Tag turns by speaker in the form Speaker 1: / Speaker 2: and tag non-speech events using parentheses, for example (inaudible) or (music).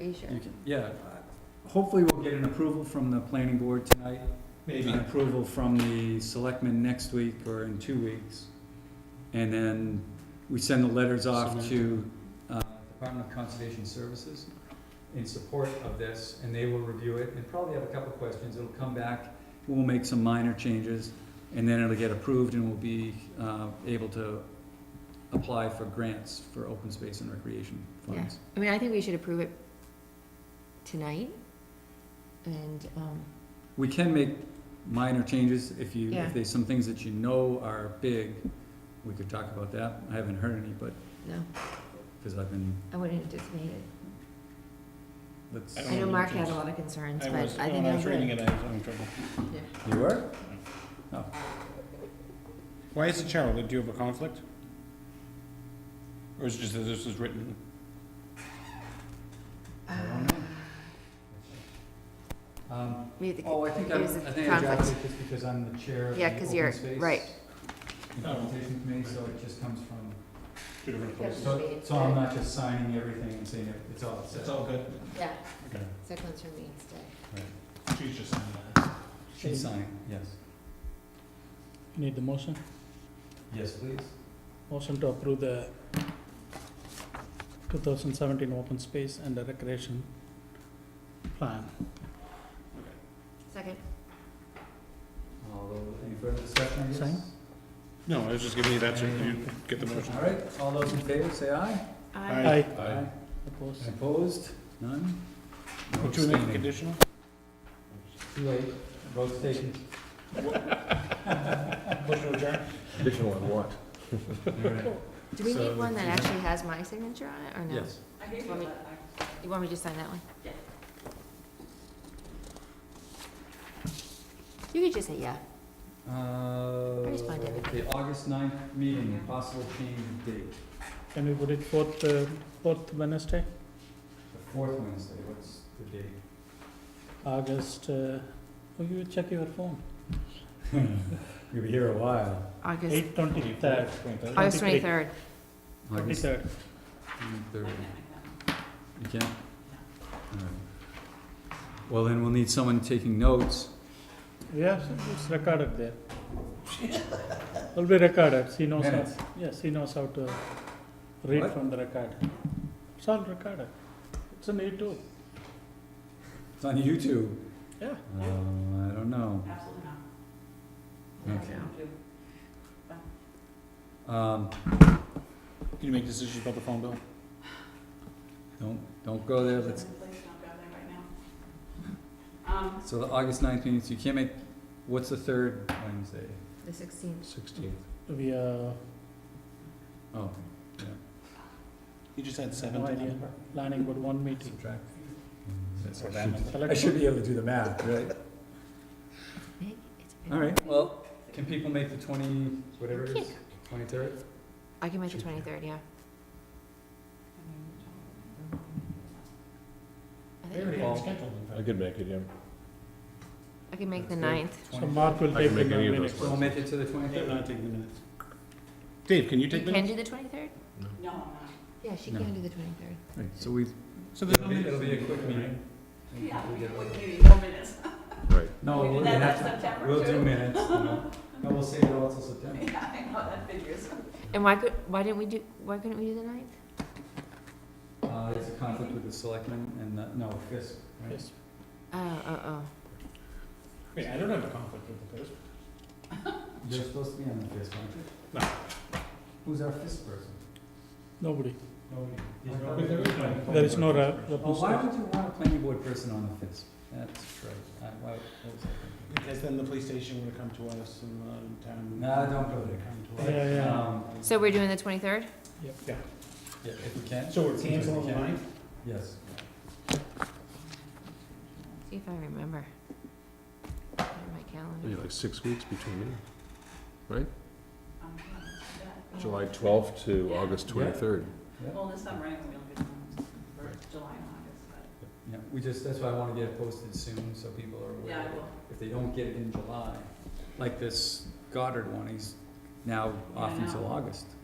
Speaker 1: Are you sure?
Speaker 2: You can, yeah, uh, hopefully we'll get an approval from the planning board tonight, maybe an approval from the selectmen next week or in two weeks. And then we send the letters off to, uh, Department of Conservation Services in support of this, and they will review it and probably have a couple of questions. It'll come back, we'll make some minor changes, and then it'll get approved and we'll be, uh, able to apply for grants for open space and recreation funds.
Speaker 1: I mean, I think we should approve it tonight, and, um,
Speaker 2: We can make minor changes if you,
Speaker 1: Yeah.
Speaker 2: if there's some things that you know are big, we could talk about that. I haven't heard any, but,
Speaker 1: no,
Speaker 2: because I've been,
Speaker 1: I wouldn't anticipate it.
Speaker 2: let's.
Speaker 3: I
Speaker 1: I know Mark had a lot of concerns,
Speaker 3: I
Speaker 1: but I
Speaker 3: was,
Speaker 1: think I'm
Speaker 3: when I was reading
Speaker 1: good.
Speaker 3: it, I was having trouble.
Speaker 2: You were?
Speaker 3: Why is it Cheryl? Do you have a conflict? Or is it just that this was written?
Speaker 2: I
Speaker 1: Uh,
Speaker 2: don't know. Um,
Speaker 1: We had the-
Speaker 2: oh, I think I'm, I
Speaker 1: there's a
Speaker 2: think I drafted
Speaker 1: conflict.
Speaker 2: it just because I'm the chair of the
Speaker 1: Yeah,
Speaker 2: open
Speaker 1: 'cause
Speaker 2: space.
Speaker 1: you're- right.
Speaker 2: Implementation committee, so it just comes from,
Speaker 3: Two different
Speaker 1: Yeah.
Speaker 3: places?
Speaker 2: so, so I'm not just signing everything and saying it- it's all set.
Speaker 3: It's all good.
Speaker 1: Yeah,
Speaker 3: Okay.
Speaker 1: so it comes from me instead.
Speaker 3: She's just signing that.
Speaker 2: She's signing, yes.
Speaker 4: Need the motion?
Speaker 2: Yes, please.
Speaker 4: Motion to approve the two thousand seventeen open space and the recreation plan.
Speaker 1: Second,
Speaker 2: Although, any further discussion, I guess?
Speaker 4: Sign?
Speaker 3: No, I was just giving you that so you get the motion.
Speaker 2: All right, all those in favor, say aye.
Speaker 1: I,
Speaker 3: Aye.
Speaker 2: Aye.
Speaker 4: Opposed?
Speaker 2: Opposed? None? No
Speaker 3: Would you make it
Speaker 2: abstaining.
Speaker 3: conditional?
Speaker 2: Too late, vote's taken.
Speaker 3: Motion adjourned?
Speaker 5: Additional on what?
Speaker 1: do we need
Speaker 2: So-
Speaker 1: one that actually has my signature on it, or no?
Speaker 2: Yes.
Speaker 1: Want me- You want me to just sign that one? You could just say yeah.
Speaker 2: Uh,
Speaker 1: responded.
Speaker 2: The August 9th meeting, possible change of date,
Speaker 4: Can we put it fourth, uh, fourth Wednesday,
Speaker 2: the fourth Wednesday, what's the date?
Speaker 4: August, uh, oh, you check your phone,
Speaker 2: You'll be here a while.
Speaker 1: August,
Speaker 4: eight twenty-third,
Speaker 1: August
Speaker 4: 23rd.
Speaker 1: twenty-third.
Speaker 2: August
Speaker 4: twenty-third.
Speaker 2: 3rd. You can? All right. Well, then we'll need someone taking notes.
Speaker 4: Yeah, it's recorded there. Will be recorded, she knows how,
Speaker 2: Minutes.
Speaker 4: yes, she knows how to read
Speaker 2: What?
Speaker 4: from the record. It's all recorded, it's on YouTube,
Speaker 2: It's on YouTube.
Speaker 4: yeah.
Speaker 2: Um, I don't know. Absolutely not. Okay. Um,
Speaker 3: Can you make decisions about the phone bill?
Speaker 2: Don't, don't go there, let's. So the August ninth meeting, so you can't make, what's the third Wednesday?
Speaker 1: The sixteenth.
Speaker 5: Sixteenth.
Speaker 4: We, uh,
Speaker 2: Oh,
Speaker 3: You just had
Speaker 4: no idea,
Speaker 3: seven.
Speaker 4: planning board one meeting.
Speaker 2: subtract.
Speaker 3: That's what that meant.
Speaker 2: I should be able to do the math, right? All right, well, can people make the twenty, whatever it is, twenty-third?
Speaker 1: I can make the twenty-third, yeah. I think-
Speaker 5: I could make it, yeah.
Speaker 1: I can make the ninth.
Speaker 4: So Mark will
Speaker 5: I
Speaker 4: take
Speaker 5: can
Speaker 4: the
Speaker 5: make any of those
Speaker 4: minutes.
Speaker 2: So we'll make it to the twenty-third?
Speaker 3: taking the minutes. Dave, can you
Speaker 1: You
Speaker 3: take
Speaker 1: can
Speaker 3: minutes?
Speaker 1: do the twenty-third?
Speaker 5: No.
Speaker 1: Yeah, she
Speaker 2: No.
Speaker 1: can do the twenty-third.
Speaker 2: So we,
Speaker 3: So there's
Speaker 2: it'll
Speaker 3: no
Speaker 2: be,
Speaker 3: minutes?
Speaker 2: it'll be a quick meeting. Yeah, we (laughs)
Speaker 5: Right.
Speaker 2: No, we'll have to, we'll do minutes. you (laughs) know. No, we'll save it all till September.
Speaker 1: And why could, why didn't we do, why couldn't we do the ninth?
Speaker 2: Uh, it's a conflict with the selectmen and, the- no, FISP, right?
Speaker 4: Yes.
Speaker 2: Uh,
Speaker 1: Oh, oh, oh.
Speaker 3: Wait, I don't have a conflict with the first.
Speaker 2: You're supposed to be on the fist, aren't you?
Speaker 3: No.
Speaker 2: Who's our fist person?
Speaker 4: Nobody.
Speaker 2: Nobody.
Speaker 4: There is no ra-
Speaker 2: Oh, why
Speaker 4: representation.
Speaker 2: would you want a planning board person on the fist? That's right. I- why- what was I thinking?
Speaker 3: Because then the police station would have come to us and, uh, town.
Speaker 2: No, don't go there.
Speaker 3: Come to us.
Speaker 4: Yeah, yeah.
Speaker 2: Um,
Speaker 1: So we're doing the twenty-third?
Speaker 3: Yeah.
Speaker 2: yeah, if we can.
Speaker 3: So we're
Speaker 2: Seems like
Speaker 3: canceling
Speaker 2: we
Speaker 3: the
Speaker 2: can.
Speaker 3: ninth?
Speaker 2: Yes.
Speaker 1: See if I remember. Put it in My
Speaker 5: Maybe
Speaker 1: calendar.
Speaker 5: like six weeks between meetings, right?
Speaker 3: Um,
Speaker 5: July twelfth to August
Speaker 2: Yeah.
Speaker 5: twenty-third.
Speaker 2: Well,
Speaker 3: this summer, I think we'll get them for July and August,
Speaker 2: Yeah, we just, that's why I wanna get it posted soon, so people are aware.
Speaker 3: Yeah, I
Speaker 2: that If they don't get it in July, like this Goddard one, he's now off
Speaker 3: Yeah, I
Speaker 2: until
Speaker 3: know.
Speaker 2: August.
Speaker 3: uh,